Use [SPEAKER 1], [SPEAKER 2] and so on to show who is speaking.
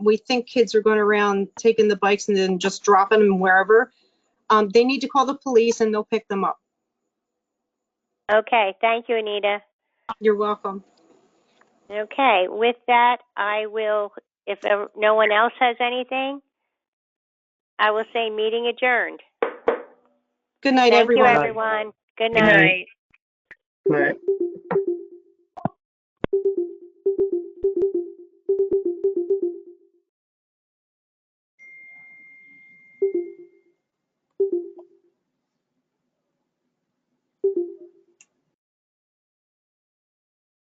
[SPEAKER 1] we think kids are going around taking the bikes and then just dropping them wherever. Um, they need to call the police and they'll pick them up.
[SPEAKER 2] Okay, thank you, Anita.
[SPEAKER 1] You're welcome.
[SPEAKER 2] Okay, with that, I will, if uh, no one else has anything, I will say meeting adjourned.
[SPEAKER 1] Good night,
[SPEAKER 2] Thank you,
[SPEAKER 1] everyone.
[SPEAKER 2] everyone. Good
[SPEAKER 3] Good
[SPEAKER 2] night.
[SPEAKER 3] night. Good night.